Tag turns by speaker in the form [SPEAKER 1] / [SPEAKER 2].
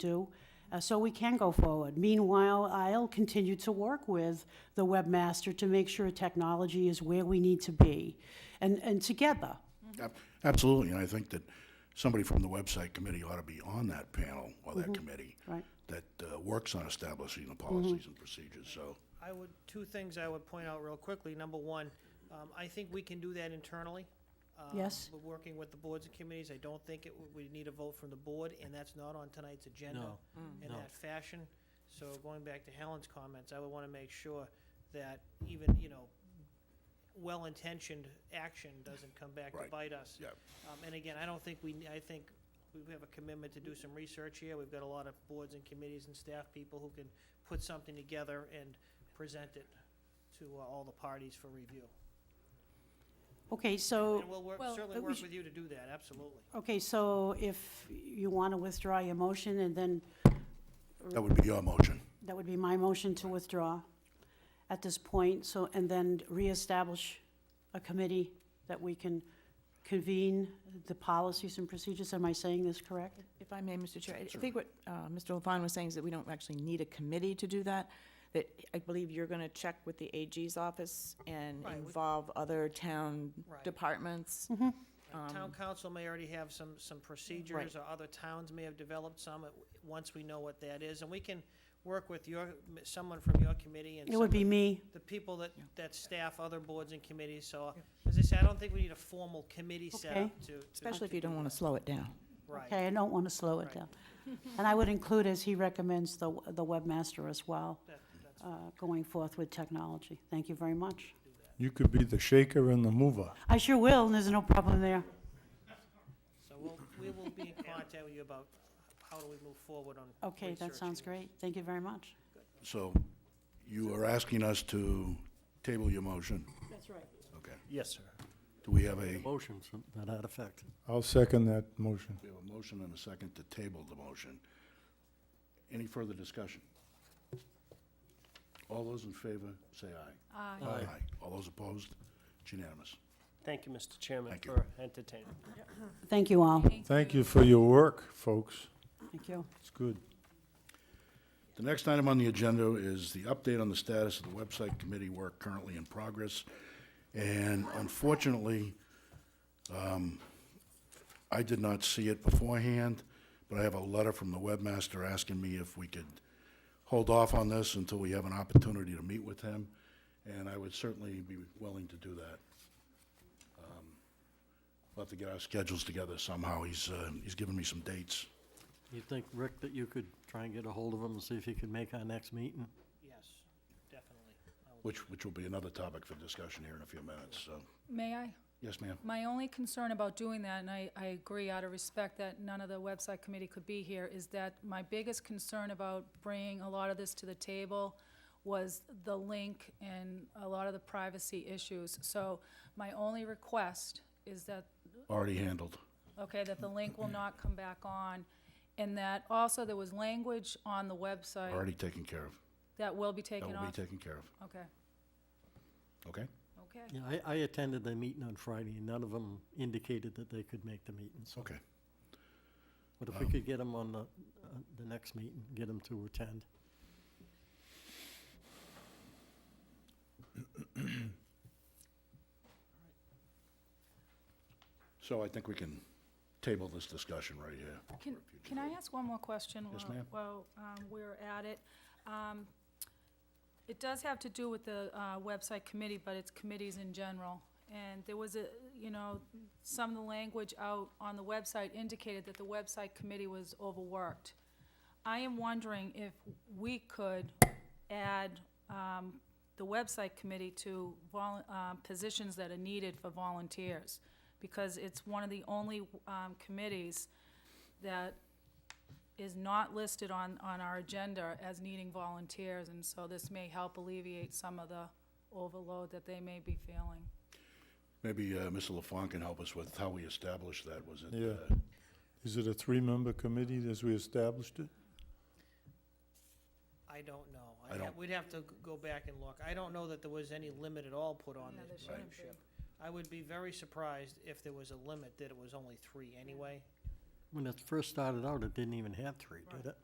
[SPEAKER 1] do, uh, so we can go forward. Meanwhile, I'll continue to work with the webmaster to make sure technology is where we need to be, and, and together.
[SPEAKER 2] Ab- Absolutely, and I think that somebody from the website committee ought to be on that panel or
[SPEAKER 1] Mm-hmm.
[SPEAKER 2] that committee.
[SPEAKER 1] Right.
[SPEAKER 2] That uh, works on establishing the
[SPEAKER 1] Mm-hmm.
[SPEAKER 2] policies and procedures, so,
[SPEAKER 3] I would, two things I would point out real quickly. Number one, um, I think we can do that internally. um,
[SPEAKER 1] Yes.
[SPEAKER 3] But working with the boards and committees, I don't think it, would- we need a vote from the board, and that's not on tonight's agenda
[SPEAKER 4] No,
[SPEAKER 3] in
[SPEAKER 4] no.
[SPEAKER 3] that fashion. So going back to Helen's comments, I would wanna make sure that even, you know, well-intentioned action doesn't come back to
[SPEAKER 2] Right.
[SPEAKER 3] bite us.
[SPEAKER 2] yeah.
[SPEAKER 3] Um, and again, I don't think we, I think we have a commitment to do some research here. We've got a lot of boards and committees and staff people who can put something together and present it to uh, all the parties for review.
[SPEAKER 1] Okay, so,
[SPEAKER 3] And we'll work,
[SPEAKER 5] Well,
[SPEAKER 3] certainly
[SPEAKER 1] we
[SPEAKER 3] work
[SPEAKER 1] should-
[SPEAKER 3] with you to do that, absolutely.
[SPEAKER 1] okay, so if you want to withdraw your motion, and then
[SPEAKER 2] That would be your motion.
[SPEAKER 1] that would be my motion to withdraw at this point, so, and then reestablish a committee that we can convene the policies and procedures. Am I saying this correct?
[SPEAKER 5] If I may, Mr. Chair, I I think what uh, Mr. Levon was saying is that we don't actually need a committee to do that, that I believe you're going to check with the AG's office and
[SPEAKER 3] Right, we-
[SPEAKER 5] involve other town
[SPEAKER 3] Right.
[SPEAKER 5] departments.
[SPEAKER 3] Like,
[SPEAKER 1] Um,
[SPEAKER 3] Town council may already have some, some procedures, or other towns may have developed some, uh, once we know what that is. And we can work with your, someone from your committee and
[SPEAKER 1] It would
[SPEAKER 3] someone-
[SPEAKER 1] be me.
[SPEAKER 3] the people that, that staff other boards and committees, so, as I said, I don't think we need a formal committee set
[SPEAKER 1] Okay.
[SPEAKER 3] up to. to-
[SPEAKER 5] Especially if
[SPEAKER 3] to
[SPEAKER 5] you
[SPEAKER 3] do
[SPEAKER 5] don't want to slow it down.
[SPEAKER 3] that. Right.
[SPEAKER 1] Okay, I don't want to slow it
[SPEAKER 3] Right.
[SPEAKER 1] down. And I would include, as he recommends, the, the webmaster as well,
[SPEAKER 3] That- that's-
[SPEAKER 1] uh, going forth with technology. Thank you very much.
[SPEAKER 6] You could be the shaker and the mover.
[SPEAKER 1] I sure will, and there's no problem there.
[SPEAKER 3] So we'll, we will be in contact with you about how do we move forward on.
[SPEAKER 1] Okay, that sounds
[SPEAKER 3] researching
[SPEAKER 1] great. Thank you very much.
[SPEAKER 2] So you are asking us to table your motion,
[SPEAKER 1] That's right.
[SPEAKER 2] okay.
[SPEAKER 4] Yes, sir.
[SPEAKER 2] Do we have a, we
[SPEAKER 4] Motion, to that effect.
[SPEAKER 6] I'll second that motion.
[SPEAKER 2] have a motion and a second to table the motion? Any further discussion? All those in favor, say aye.
[SPEAKER 4] Aye.
[SPEAKER 2] All those opposed? It's unanimous.
[SPEAKER 7] Thank you, Mr. Chairman,
[SPEAKER 2] Thank you.
[SPEAKER 7] for entertaining.
[SPEAKER 1] Thank you all.
[SPEAKER 6] Thank you for your work, folks.
[SPEAKER 1] Thank you.
[SPEAKER 6] It's good.
[SPEAKER 2] The next item on the agenda is the update on the status of the website committee work currently in progress. And unfortunately, um, I did not see it beforehand, but I have a letter from the webmaster asking me if we could hold off on this until we have an opportunity to meet with him, and I would certainly be willing to do that. Um, We'll have to get our schedules together somehow. He's, uh, he's given me some dates.
[SPEAKER 4] You think, Rick, that you could try and get a hold of him and see if he could make our next meeting?
[SPEAKER 3] Yes, definitely. I will-
[SPEAKER 2] which, which will be another topic for discussion here in a few minutes, so.
[SPEAKER 8] May I?
[SPEAKER 2] Yes, ma'am.
[SPEAKER 8] My only concern about doing that, and I, I agree out of respect that none of the website committee could be here, is that my biggest concern about bringing a lot of this to the table was the link and a lot of the privacy issues. So my only request is that
[SPEAKER 2] Already handled.
[SPEAKER 8] okay, that the link will not come back on, and that also there was language on the website
[SPEAKER 2] Already taken care of.
[SPEAKER 8] that will be
[SPEAKER 2] That
[SPEAKER 8] taken
[SPEAKER 2] will be
[SPEAKER 8] off.
[SPEAKER 2] taken care of.
[SPEAKER 8] Okay,
[SPEAKER 2] Okay?
[SPEAKER 8] okay.
[SPEAKER 4] Yeah, I, I attended the meeting on Friday, and none of them indicated that they could make the meeting, so.
[SPEAKER 2] Okay.
[SPEAKER 4] But if we could get him on the, uh, the next meeting, get him to attend.
[SPEAKER 2] So I think we can table this discussion right here.
[SPEAKER 8] Can, can I ask one more question?
[SPEAKER 2] Yes,
[SPEAKER 8] while-
[SPEAKER 2] ma'am.
[SPEAKER 8] While um, we're at it. Um, It does have to do with the uh, website committee, but it's committees in general. And there was a, you know, some of the language out on the website indicated that the website committee was overworked. I am wondering if we could add um, the website committee to vol, um, positions that are needed for volunteers, because it's one of the only um, committees that is not listed on, on our agenda as needing volunteers, and so this may help alleviate some of the overload that they may be feeling.
[SPEAKER 2] Maybe uh, Mr. LaFawn can help us with how we established that. Was it?
[SPEAKER 6] Yeah.
[SPEAKER 2] uh,
[SPEAKER 6] Is it a three-member committee as we established it?
[SPEAKER 3] I don't know.
[SPEAKER 2] I
[SPEAKER 3] I'd ha-
[SPEAKER 2] don't-
[SPEAKER 3] We'd have to g- go back and look. I don't know that there was any limit at all put on
[SPEAKER 8] Yeah, there
[SPEAKER 3] this
[SPEAKER 8] shouldn't be.
[SPEAKER 3] membership. I would be very surprised if there was a limit, that it was only three anyway.
[SPEAKER 4] When it first started out, it didn't even have three, did it?